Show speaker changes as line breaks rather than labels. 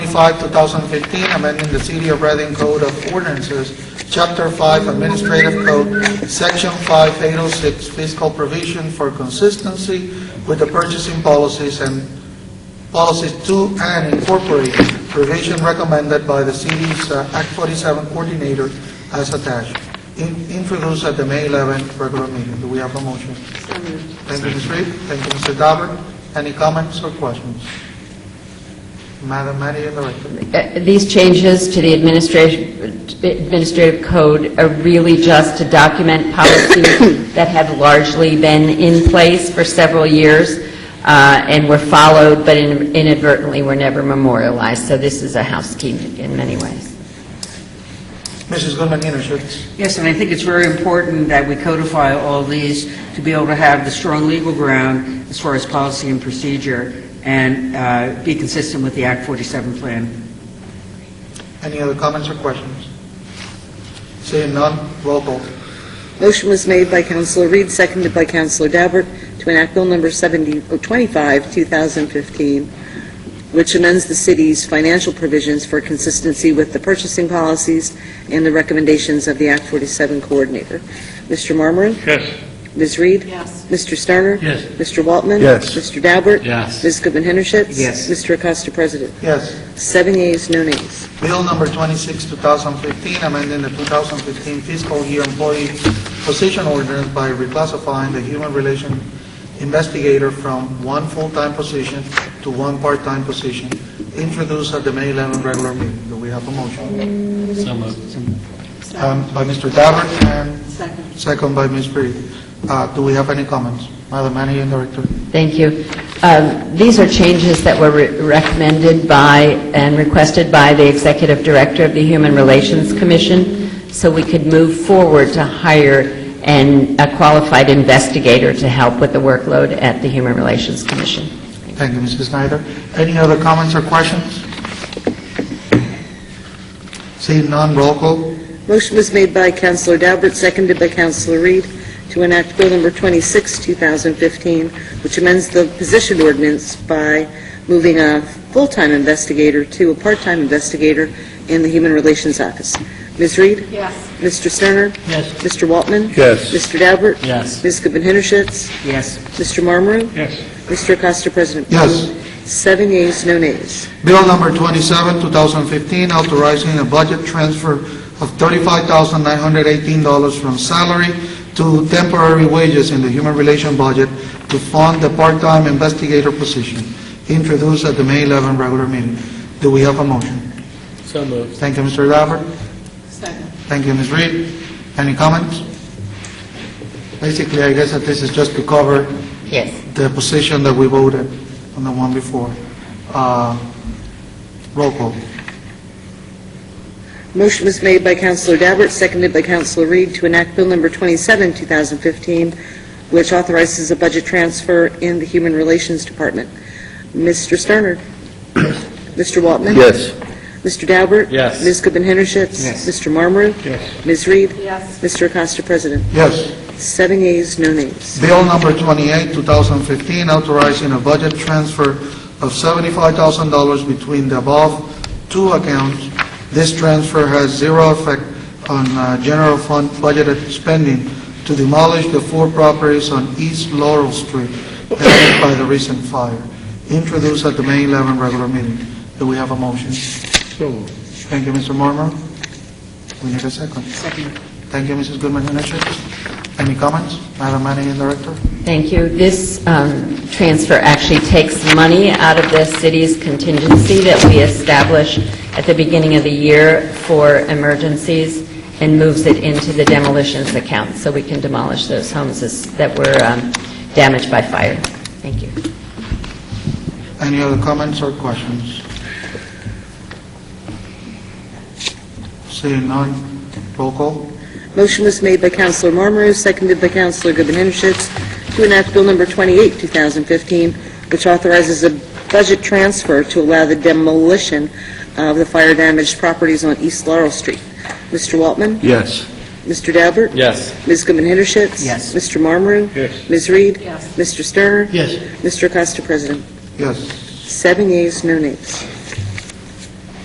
25, 2015, amending the City of Reading Code of Ordinances, Chapter 5 Administrative Code, Section 5806 fiscal provision for consistency with the purchasing policies and policies to and incorporate provision recommended by the city's uh, Act 47 coordinator as attached, In- introduced at the May 11th regular meeting. Do we have a motion?
So moved.
Thank you, Ms. Reed. Thank you, Mr. Daubert. Any comments or questions? Madam Manager, Director.
Uh, These changes to the administration- administrative code are really just to document policies that have largely been in place for several years uh, and were followed, but in- inadvertently were never memorialized. So this is a housekeeping in many ways.
Mrs. Goodman Innersohn.
Yes, and I think it's very important that we codify all these to be able to have the strong legal ground as far as policy and procedure and uh, be consistent with the Act 47 plan.
Any other comments or questions? Seeing none, roll call.
Motion was made by Councilor Reed, seconded by Councilor Daubert, to enact Bill Number 70 oh, 25, 2015, which amends the city's financial provisions for consistency with the purchasing policies and the recommendations of the Act 47 Coordinator. Mr. Marmarin?
Yes.
Ms. Reed?
Yes.
Mr. Sterner?
Yes.
Mr. Waltman?
Yes.
Mr. Daubert?
Yes.
Ms. Goodman Henschitz?
Yes.
Mr. Acosta, President.
Yes.
Seven yeas, no nays.
Bill number 26, 2015, amending the 2015 fiscal year employee position ordinance by reclassifying the human relation investigator from one full-time position to one part-time position, introduced at the May 11 regular meeting. Do we have a motion?
So moved.
Um, By Mr. Dabbert and... Second. Second by Ms. Reed. Uh, Do we have any comments? Madam Managing Director.
Thank you. Um, These are changes that were re- recommended by and requested by the Executive Director of the Human Relations Commission, so we could move forward to hire an- a qualified investigator to help with the workload at the Human Relations Commission.
Thank you, Mrs. Snyder. Any other comments or questions? Seeing none, roll call.
Motion was made by Councilor Daubert, seconded by Councilor Reed, to enact Bill Number 26, 2015, which amends the position ordinance by moving a full-time investigator to a part-time investigator in the Human Relations Office. Ms. Reed?
Yes.
Mr. Sterner?
Yes.
Mr. Waltman?
Yes.
Mr. Daubert?
Yes.
Ms. Goodman Henschitz?
Yes.
Mr. Marmarin?
Yes.
Mr. Acosta, President.
Yes.
Seven yeas, no nays.
Bill number 27, 2015, authorizing a budget transfer of $35,918 from salary to temporary wages in the human relation budget to fund the part-time investigator position, introduced at the May 11 regular meeting. Do we have a motion?
So moved.
Thank you, Mr. Daubert. Thank you, Ms. Reed. Any comments? Basically, I guess that this is just to cover
Yes.
the position that we voted on the one before. Uh, Roll call.
Motion was made by Councilor Daubert, seconded by Councilor Reed, to enact Bill Number 27, 2015, which authorizes a budget transfer in the Human Relations Department. Mr. Sterner? Mr. Waltman?
Yes.
Mr. Daubert?
Yes.
Ms. Goodman Henschitz?
Yes.
Mr. Marmarin?
Yes.
Ms. Reed?
Yes.
Mr. Acosta, President.
Yes.
Seven yeas, no nays.
Bill number 28, 2015, authorizing a budget transfer of $75,000 between the above two accounts. This transfer has zero effect on uh, general fund budgeted spending to demolish the four properties on East Laurel Street damaged by the recent fire, introduced at the May 11 regular meeting. Do we have a motion? Thank you, Mr. Marmer. We need a second.
Second.
Thank you, Mrs. Goodman Henechek. Any comments, Madam Managing Director?
Thank you. This um, transfer actually takes money out of the city's contingency that we establish at the beginning of the year for emergencies and moves it into the demolitions account, so we can demolish those homes as- that were um, damaged by fire. Thank you.
Any other comments or questions? Seeing none, roll call.
Motion was made by Councilor Marmarin, seconded by Councilor Goodman Henschitz, to enact Bill Number 28, 2015, which authorizes a budget transfer to allow the demolition of the fire-damaged properties on East Laurel Street. Mr. Waltman?
Yes.
Mr. Daubert?
Yes.
Ms. Goodman Henschitz?
Yes.
Mr. Marmarin?
Yes.
Ms. Reed?
Yes.
Mr. Sterner?
Yes.
Mr. Acosta, President.
Yes.
Seven yeas, no nays.